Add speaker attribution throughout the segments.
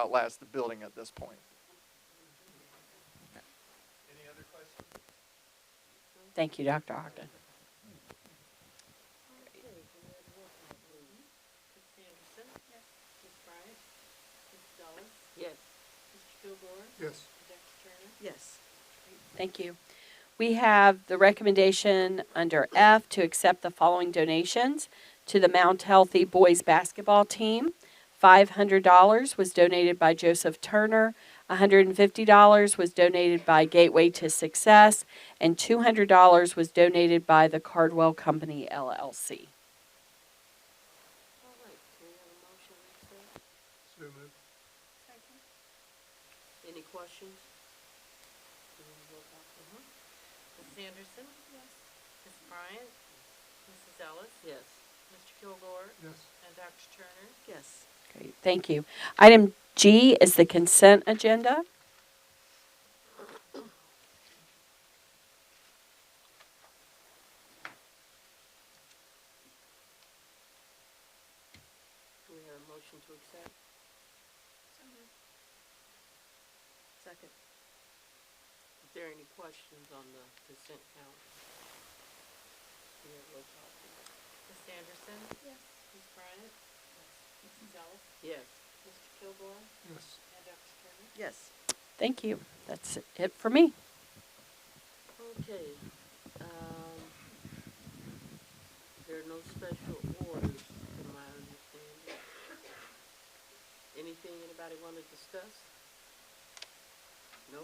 Speaker 1: outlast the building at this point.
Speaker 2: Thank you, Dr. Ogden.
Speaker 3: Ms. Anderson? Yes. Ms. Bryant? Ms. Dulles?
Speaker 4: Yes.
Speaker 3: Mr. Kilgore?
Speaker 1: Yes.
Speaker 3: Dr. Turner?
Speaker 4: Yes.
Speaker 2: Thank you. We have the recommendation under F to accept the following donations to the Mount Healthy Boys Basketball Team. $500 was donated by Joseph Turner, $150 was donated by Gateway to Success, and $200 was donated by the Cardwell Company LLC.
Speaker 4: All right, can we have a motion, Lisa?
Speaker 5: So moved.
Speaker 4: Any questions? Do we have a roll call? Mhm.
Speaker 3: Ms. Mm-hmm. Anderson? Yes. Ms. Bryant? Mrs. Ellis?
Speaker 4: Yes.
Speaker 3: Mr. Kilgore?
Speaker 5: Yes.
Speaker 3: And Dr. Turner?
Speaker 4: Yes.
Speaker 2: Great, thank you. Item G is the consent agenda.
Speaker 4: Do we have a motion to accept? Second. Is there any questions on the consent calendar? Do we have a roll call? please?
Speaker 3: Ms. Anderson? Yes. Ms. Bryant? Mrs. Ellis?
Speaker 4: Yes.
Speaker 3: Mr. Kilgore?
Speaker 5: Yes.
Speaker 3: And Dr. Turner?
Speaker 4: Yes.
Speaker 2: Thank you. That's it for me.
Speaker 4: Okay, um, there are no special orders, from my understanding. Anything anybody wanna discuss? No?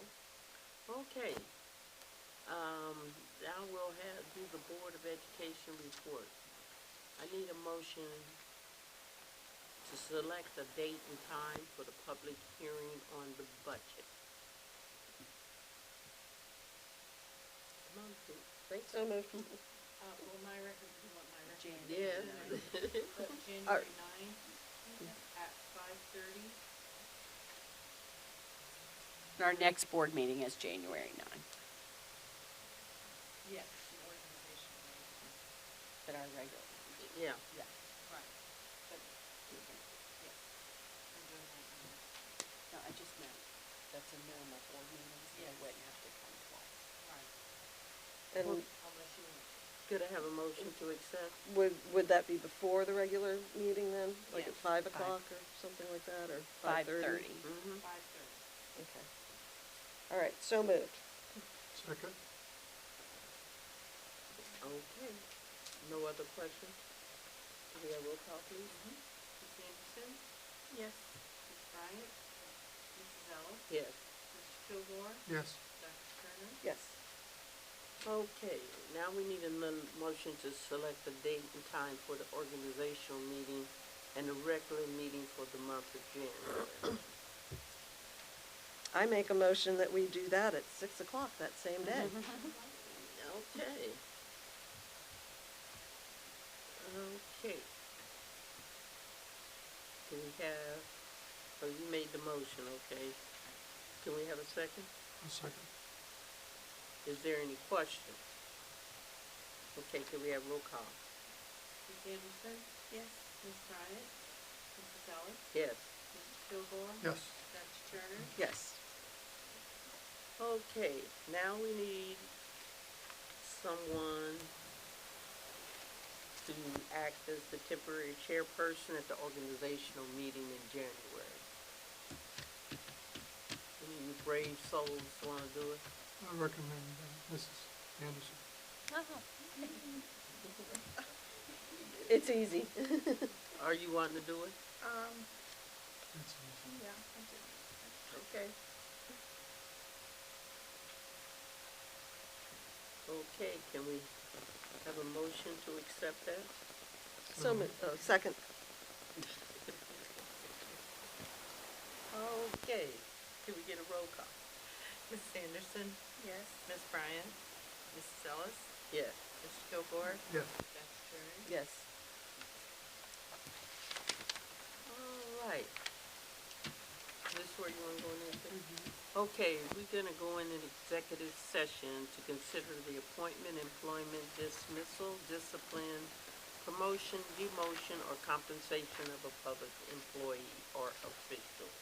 Speaker 4: Okay. Um, I will have, do the Board of Education report. I need a motion to select a date and time for the public hearing on the budget. Come on, think- Think so
Speaker 3: Uh, well, my record, you want my record?
Speaker 4: Yes.
Speaker 3: But January ninth at five thirty.
Speaker 2: Our next board meeting is January 9.
Speaker 3: Yes, the organization.
Speaker 2: But our regular.
Speaker 4: Yeah,
Speaker 3: Right. But, yes. We're doing that
Speaker 2: No,
Speaker 3: now.
Speaker 2: I just meant, that's a normal board meeting, so I wouldn't have to come twice.
Speaker 3: Right.
Speaker 6: And
Speaker 3: Unless you,
Speaker 4: could I have a motion to accept?
Speaker 6: would, would that be before the regular meeting then? Like at
Speaker 2: Yes,
Speaker 6: five
Speaker 2: five.
Speaker 6: o'clock or something like that, or five
Speaker 2: Five
Speaker 6: thirty?
Speaker 2: thirty.
Speaker 4: Mm-hmm.
Speaker 3: five thirty.
Speaker 6: Okay. All right, so moved.
Speaker 5: Second?
Speaker 4: Okay. No other questions? Can we have roll call, please?
Speaker 3: Ms. Anderson? Yes. Ms. Bryant? Mrs. Ellis?
Speaker 4: Yes.
Speaker 3: Mr. Kilgore?
Speaker 5: Yes.
Speaker 3: Dr. Turner?
Speaker 6: Yes.
Speaker 4: Okay, now we need a mon- motion to select the date and time for the organizational meeting and the regular meeting for the month of January.
Speaker 6: I make a motion that we do that at six o'clock that same day.
Speaker 4: Okay. Okay. Can we have, oh, you made the motion, okay. Can we have a second?
Speaker 5: A second?
Speaker 4: Is there any question? Okay, can we have roll call?
Speaker 3: Ms. Anderson? Yes. Ms. Bryant? Mrs. Ellis?
Speaker 4: Yes.
Speaker 3: Mr. Kilgore?
Speaker 5: Yes.
Speaker 3: Dr. Turner?
Speaker 6: Yes.
Speaker 4: Okay, now we need someone to act as the temporary chairperson at the organizational meeting in January. Any of you brave souls wanna do it?
Speaker 5: I recommend uh, Mrs. Anderson.
Speaker 6: It's easy.
Speaker 4: Are you wanting to do it?
Speaker 3: Um,
Speaker 5: It's easy.
Speaker 4: Okay. Okay, can we have a motion to accept that?
Speaker 6: So moved, oh, second.
Speaker 4: Okay, can we get a roll call?
Speaker 3: Ms. Anderson? Yes. Ms. Bryant? Mrs. Ellis?
Speaker 4: Yes.
Speaker 3: Mr. Kilgore?
Speaker 5: Yes.
Speaker 3: Dr. Turner?
Speaker 6: Yes.
Speaker 4: All right. This where you wanna go in there? Vic? Okay, we're gonna go in an executive session to consider the appointment, employment, dismissal, discipline, promotion, demotion, or compensation of a public employee or official.